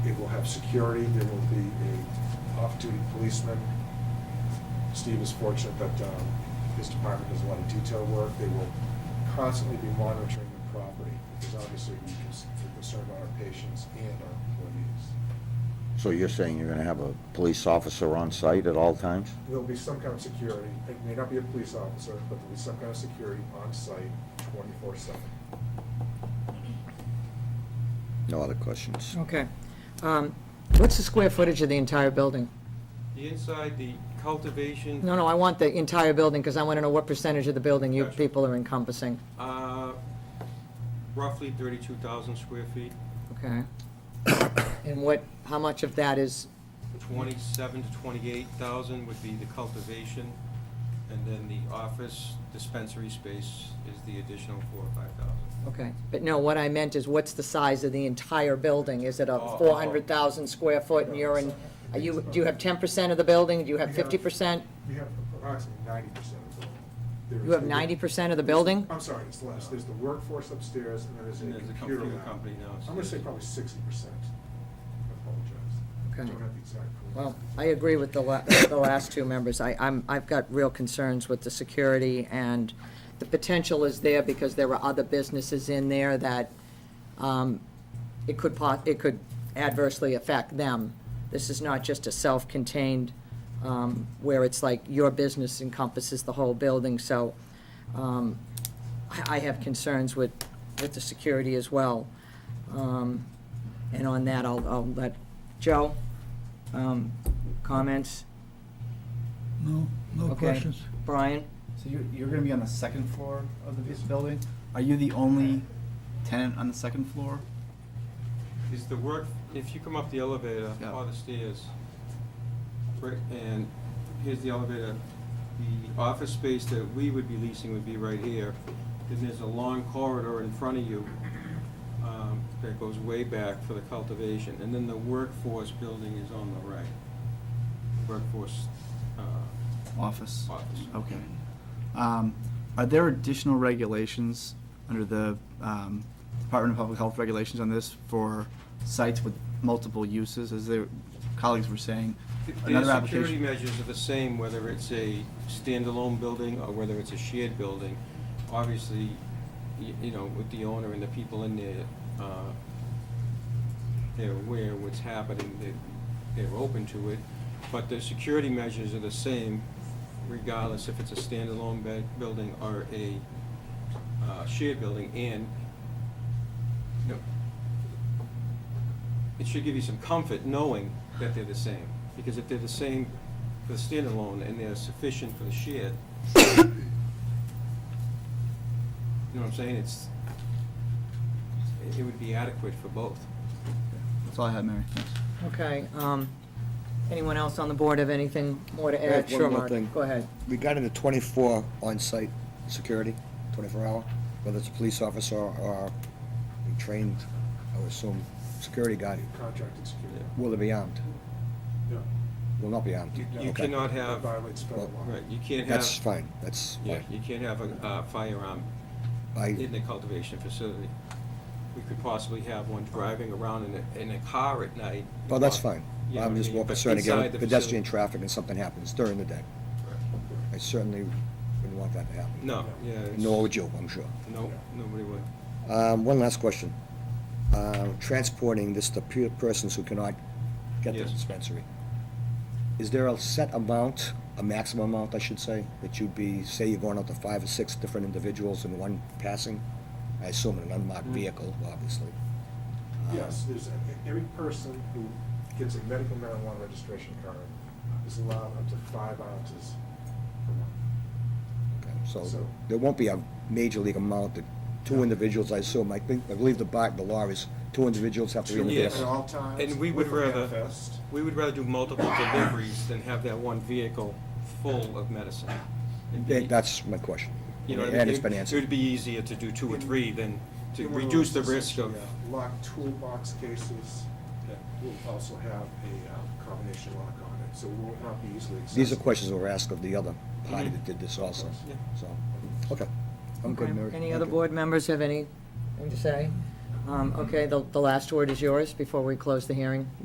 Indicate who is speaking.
Speaker 1: have security, there will be a off-duty policeman. Steve is fortunate that um, his department does a lot of detail work. They will constantly be monitoring the property, because obviously we can s- we're concerned about our patients and our employees.
Speaker 2: So you're saying you're gonna have a police officer on site at all times?
Speaker 1: There'll be some kind of security, it may not be a police officer, but there'll be some kind of security on site twenty-four seven.
Speaker 2: No other questions?
Speaker 3: Okay. Um, What's the square footage of the entire building?
Speaker 4: The inside, the cultivation.
Speaker 3: No, no, I want the entire building, because I want to know what percentage of the building you
Speaker 4: Gotcha.
Speaker 3: people are encompassing.
Speaker 4: uh, Roughly 32,000 square feet,
Speaker 3: Okay. And what, how much of that is,
Speaker 4: 27 to 28,000 would be the cultivation, and then the office dispensary space is the additional 4 or 5,000.
Speaker 3: okay. But no, what I meant is, what's the size of the entire building? Is it a
Speaker 4: Oh, oh.
Speaker 3: 400,000 square foot, and you're in, are you, do you have 10% of the building? Do you have
Speaker 1: We have-
Speaker 3: 50%?
Speaker 1: We have approximately ninety percent of the. there
Speaker 3: You
Speaker 1: is
Speaker 3: have
Speaker 1: the-
Speaker 3: 90% of the building?
Speaker 1: I'm sorry, it's less. There's the workforce upstairs, and then there's
Speaker 4: And there's
Speaker 1: a
Speaker 4: a
Speaker 1: computer
Speaker 4: computer
Speaker 1: lab.
Speaker 4: company now
Speaker 1: I'm gonna say
Speaker 4: upstairs.
Speaker 1: probably sixty percent. I apologize.
Speaker 3: Okay.
Speaker 1: Don't have the exact.
Speaker 3: Well, I agree with the la, the last two members. I, I'm, I've got real concerns with the security, and the potential is there because there are other businesses in there that, um, it could po, it could adversely affect them. This is not just a self-contained, um, where it's like your business encompasses the whole building, so, um, I, I have concerns with, with the security as well. Um, and on that, I'll, I'll let Joe, um, comments?
Speaker 5: No, no
Speaker 3: Okay.
Speaker 5: questions.
Speaker 3: Brian?
Speaker 6: So you're, you're gonna be on the second floor of the bus- building? Are you the only tenant on the second floor?
Speaker 4: Is the work, if you come up the elevator
Speaker 6: Yeah.
Speaker 4: or the stairs, right, and here's the elevator, the office space that we would be leasing would be right here. Then there's a long corridor in front of you um, that goes way back for the cultivation. And then the workforce building is on the right, workforce uh,
Speaker 6: Office?
Speaker 4: office.
Speaker 6: Okay. Um, are there additional regulations under the, um, Department of Public Health regulations on this for sites with multiple uses, as their colleagues were saying?
Speaker 4: The
Speaker 6: Another
Speaker 4: security
Speaker 6: application,
Speaker 4: measures are the same, whether it's a standalone building or whether it's a shared building. Obviously, y- you know, with the owner and the people in there, uh, they're aware what's happening, they- they're open to it. But the security measures are the same regardless if it's a standalone bed- building or a uh, shared building. And, you know, it should give you some comfort knowing that they're the same. Because if they're the same for the standalone and they're sufficient for the shared, you know what I'm saying? It's, it- it would be adequate for both.
Speaker 6: that's all I had, Mary, thanks.
Speaker 3: Okay, um, anyone else on the board have anything more to add?
Speaker 7: have one
Speaker 3: Sure,
Speaker 7: more
Speaker 3: Mark.
Speaker 7: thing.
Speaker 3: Go ahead.
Speaker 7: regarding the 24 on-site security, 24 hour, whether it's a police officer or a trained, I would assume, security guard,
Speaker 1: Contracted security.
Speaker 7: will they be armed?
Speaker 1: No,
Speaker 7: Will not be armed?
Speaker 4: You- You
Speaker 7: Okay.
Speaker 4: cannot
Speaker 1: that
Speaker 4: have,
Speaker 1: violates federal
Speaker 7: Well,
Speaker 1: law.
Speaker 4: right, you can't have,
Speaker 7: That's fine, that's
Speaker 4: yeah,
Speaker 7: fine.
Speaker 4: you can't have a uh, firearm in
Speaker 7: I,
Speaker 4: the cultivation facility. We could possibly have one driving around in a, in a car at night.
Speaker 7: well, Oh, that's fine.
Speaker 4: You know
Speaker 7: I'm
Speaker 4: what I
Speaker 7: just
Speaker 4: mean?
Speaker 7: more
Speaker 4: But
Speaker 7: concerned
Speaker 4: inside
Speaker 7: again
Speaker 4: the
Speaker 7: with pedestrian
Speaker 4: facility-
Speaker 7: traffic and something happens during the day. I certainly wouldn't want that to happen.
Speaker 4: No, yeah. it's-
Speaker 7: Nor would you, I'm sure.
Speaker 4: No, nobody would.
Speaker 7: Um, One last question. Uh, Transporting this to pe- persons who cannot get to the
Speaker 4: Yes.
Speaker 7: dispensary. Is there a set amount, a maximum amount, I should say, that you'd be, say you're going out to five or six different individuals in one passing? I assume in an unmarked
Speaker 4: Mm.
Speaker 7: vehicle, obviously. Uh,
Speaker 1: Yes, there's, a- every person who gets a medical marijuana registration card is allowed up to five ounces per month.
Speaker 7: okay,
Speaker 1: So-
Speaker 7: So there won't be a major league amount that two individuals, I assume, I think, I believe the bar, the law is two individuals have to be in the
Speaker 4: Yes.
Speaker 1: At
Speaker 7: vehicle.
Speaker 1: all times.
Speaker 4: And we would
Speaker 1: with a
Speaker 4: rather-
Speaker 1: manifest.
Speaker 4: We would rather do multiple deliveries than have that one vehicle full of medicine. It'd be-
Speaker 7: Th- That's my question.
Speaker 4: you know what I
Speaker 7: And
Speaker 4: mean?
Speaker 7: it's been
Speaker 4: It-
Speaker 7: answered.
Speaker 4: It would be easier to do two or three than to
Speaker 1: In one of
Speaker 4: reduce the
Speaker 1: those
Speaker 4: risk of,
Speaker 1: essentially, uh, Locked toolbox cases that will also have a uh, combination lock on it, so it will not be easily accessible.
Speaker 7: These are questions that were asked of the other party
Speaker 4: Mhm.
Speaker 7: that did this also,
Speaker 4: Yeah.
Speaker 7: so, okay. I'm good,
Speaker 3: Okay.
Speaker 7: Mary.
Speaker 3: Any
Speaker 7: Thank
Speaker 3: other
Speaker 7: you.
Speaker 3: board members have anything to say? Um, okay, the, the last word is yours before we close the hearing.